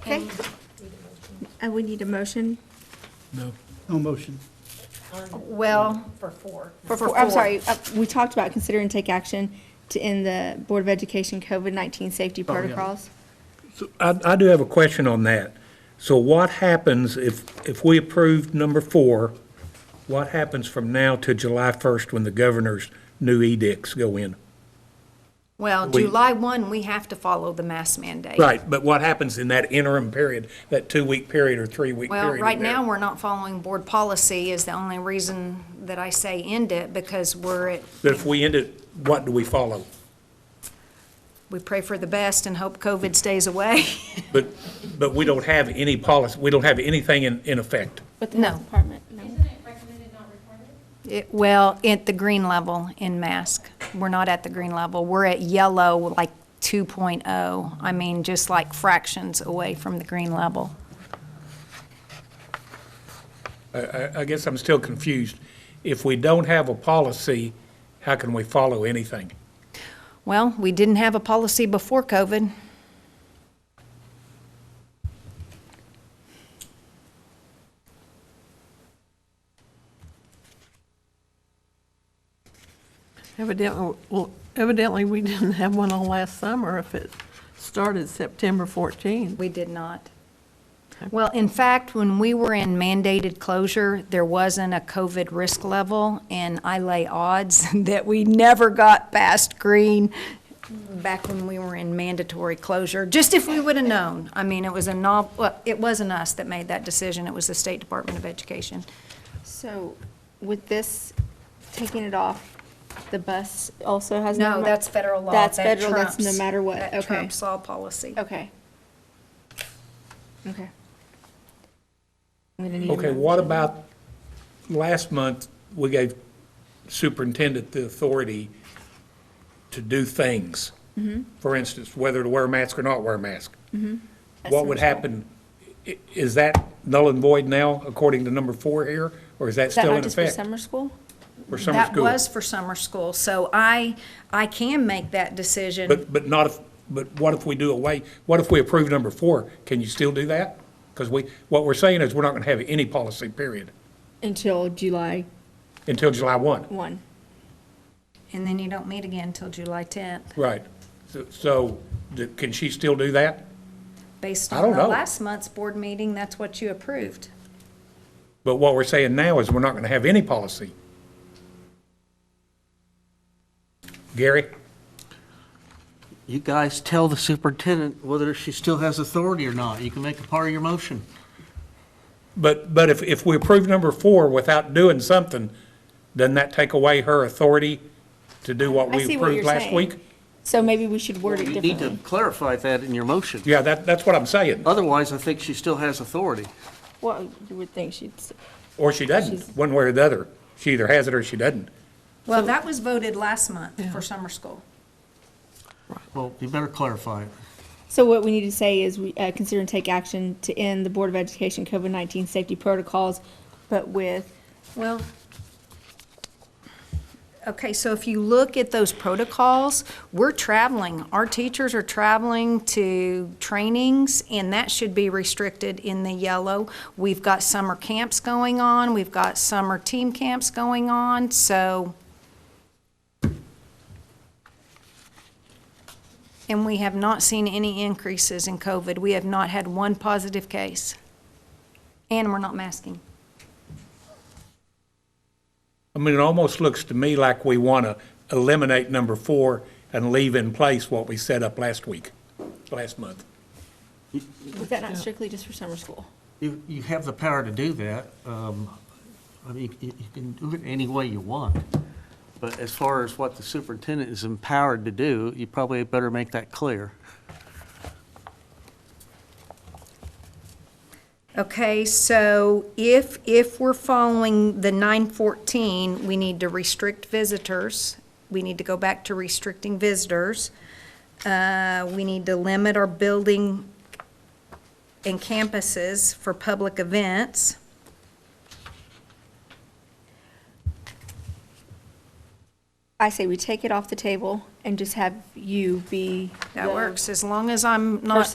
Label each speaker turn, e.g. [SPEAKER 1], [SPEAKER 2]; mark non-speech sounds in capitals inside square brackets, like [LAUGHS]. [SPEAKER 1] Okay. And Uh, we need a motion
[SPEAKER 2] No.
[SPEAKER 3] No motion.
[SPEAKER 4] Well,
[SPEAKER 5] For four.
[SPEAKER 1] for,
[SPEAKER 4] For
[SPEAKER 1] four- I'm
[SPEAKER 4] four.
[SPEAKER 1] sorry, uh, we talked about consider and take action to end the Board of Education COVID-19 safety
[SPEAKER 2] Oh,
[SPEAKER 1] protocols.
[SPEAKER 2] So I, I do have a question on that. So what happens if, if we approve number four, what happens from now to July 1st when the governor's new edicts go in?
[SPEAKER 4] well,
[SPEAKER 2] We-
[SPEAKER 4] July 1, we have to follow the mask mandate.
[SPEAKER 2] Right, but what happens in that interim period, that two-week period or three-week period?
[SPEAKER 4] Well,
[SPEAKER 2] in
[SPEAKER 4] right
[SPEAKER 2] there?
[SPEAKER 4] now, we're not following board policy is the only reason that I say end it because we're at,
[SPEAKER 2] But if we end it, what do we follow?
[SPEAKER 4] we pray for the best and hope COVID stays away. [LAUGHS]
[SPEAKER 2] But, but we don't have any policy, we don't have anything in, in effect.
[SPEAKER 1] With the
[SPEAKER 4] No.
[SPEAKER 1] health department, no.
[SPEAKER 5] Isn't it recommended not recorded?
[SPEAKER 4] It- Well, at the green level in mask. We're not at the green level. We're at yellow, like 2.0. I mean, just like fractions away from the green level.
[SPEAKER 2] I, I guess I'm still confused. If we don't have a policy, how can we follow anything?
[SPEAKER 4] Well, we didn't have a policy before COVID.
[SPEAKER 6] Evidently, well, evidently, we didn't have one on last summer if it started September 14th.
[SPEAKER 4] We did not. Well, in fact, when we were in mandated closure, there wasn't a COVID risk level, and I lay odds [LAUGHS] that we never got past green back when we were in mandatory closure, just if we would have known. I mean, it was a nov, well, it wasn't us that made that decision, it was the State Department of Education.
[SPEAKER 1] So with this, taking it off, the bus also has.
[SPEAKER 4] No,
[SPEAKER 1] mar-
[SPEAKER 4] that's federal law.
[SPEAKER 1] That's
[SPEAKER 4] That
[SPEAKER 1] federal, that's no
[SPEAKER 4] trumps-
[SPEAKER 1] matter what,
[SPEAKER 4] That
[SPEAKER 1] okay.
[SPEAKER 4] trumps all policy.
[SPEAKER 1] Okay. Okay.
[SPEAKER 2] Okay, what about, last month, we gave superintendent the authority to do things. For instance, whether to wear a mask or not wear a mask. What would happen, i- is that null and void now, according to number four here? Or is that
[SPEAKER 1] Is that
[SPEAKER 2] still
[SPEAKER 1] not
[SPEAKER 2] in
[SPEAKER 1] just for
[SPEAKER 2] effect
[SPEAKER 1] summer school?
[SPEAKER 2] for summer
[SPEAKER 4] That
[SPEAKER 2] school?
[SPEAKER 4] was for summer school, so I, I can make that decision.
[SPEAKER 2] But, but not if, but what if we do away, what if we approve number four? Can you still do that? Because we, what we're saying is, we're not going to have any policy period
[SPEAKER 1] Until July
[SPEAKER 2] until July 1.
[SPEAKER 1] one.
[SPEAKER 4] And then you don't meet again until July 10th,
[SPEAKER 2] Right. So- So, th- can she still do that?
[SPEAKER 4] based
[SPEAKER 2] I don't
[SPEAKER 4] on the
[SPEAKER 2] know.
[SPEAKER 4] last month's board meeting, that's what you approved.
[SPEAKER 2] But what we're saying now is we're not going to have any policy. Gary?
[SPEAKER 7] You guys tell the superintendent whether she still has authority or not. You can make it part of your motion.
[SPEAKER 2] But, but if, if we approve number four without doing something, doesn't that take away her authority to do what
[SPEAKER 1] I
[SPEAKER 2] we
[SPEAKER 1] see what you're
[SPEAKER 2] approved last
[SPEAKER 1] saying.
[SPEAKER 2] week?
[SPEAKER 1] So maybe we should word it
[SPEAKER 7] You need to
[SPEAKER 1] differently.
[SPEAKER 7] clarify that in your motion.
[SPEAKER 2] Yeah, that, that's what I'm saying.
[SPEAKER 7] Otherwise, I think she still has authority.
[SPEAKER 1] Well, you would think she'd, s-
[SPEAKER 2] Or she doesn't, one way or the other. She either has it or she doesn't.
[SPEAKER 4] Well, that was voted last month for summer school.
[SPEAKER 7] Well, you better clarify it.
[SPEAKER 1] so what we need to say is we, uh, consider and take action to end the Board of Education COVID-19 safety protocols, but with,
[SPEAKER 4] Well, okay, so if you look at those protocols, we're traveling. Our teachers are traveling to trainings, and that should be restricted in the yellow. We've got summer camps going on, we've got summer team camps going on, so. And we have not seen any increases in COVID. We have not had one positive case. And we're not masking.
[SPEAKER 2] I mean, it almost looks to me like we want to eliminate number four and leave in place what we set up last week, last month.
[SPEAKER 1] is that not strictly just for summer school?
[SPEAKER 7] You, you have the power to do that. Um, I mean, you you can do it any way you want. But as far as what the superintendent is empowered to do, you probably better make that clear.
[SPEAKER 4] Okay, so if, if we're following the nine fourteen, we need to restrict visitors. We need to go back to restricting visitors. Uh, we need to limit our building and campuses for public events.
[SPEAKER 1] I say we take it off the table and just have you be.
[SPEAKER 4] That
[SPEAKER 1] the-
[SPEAKER 4] works, as long as I'm not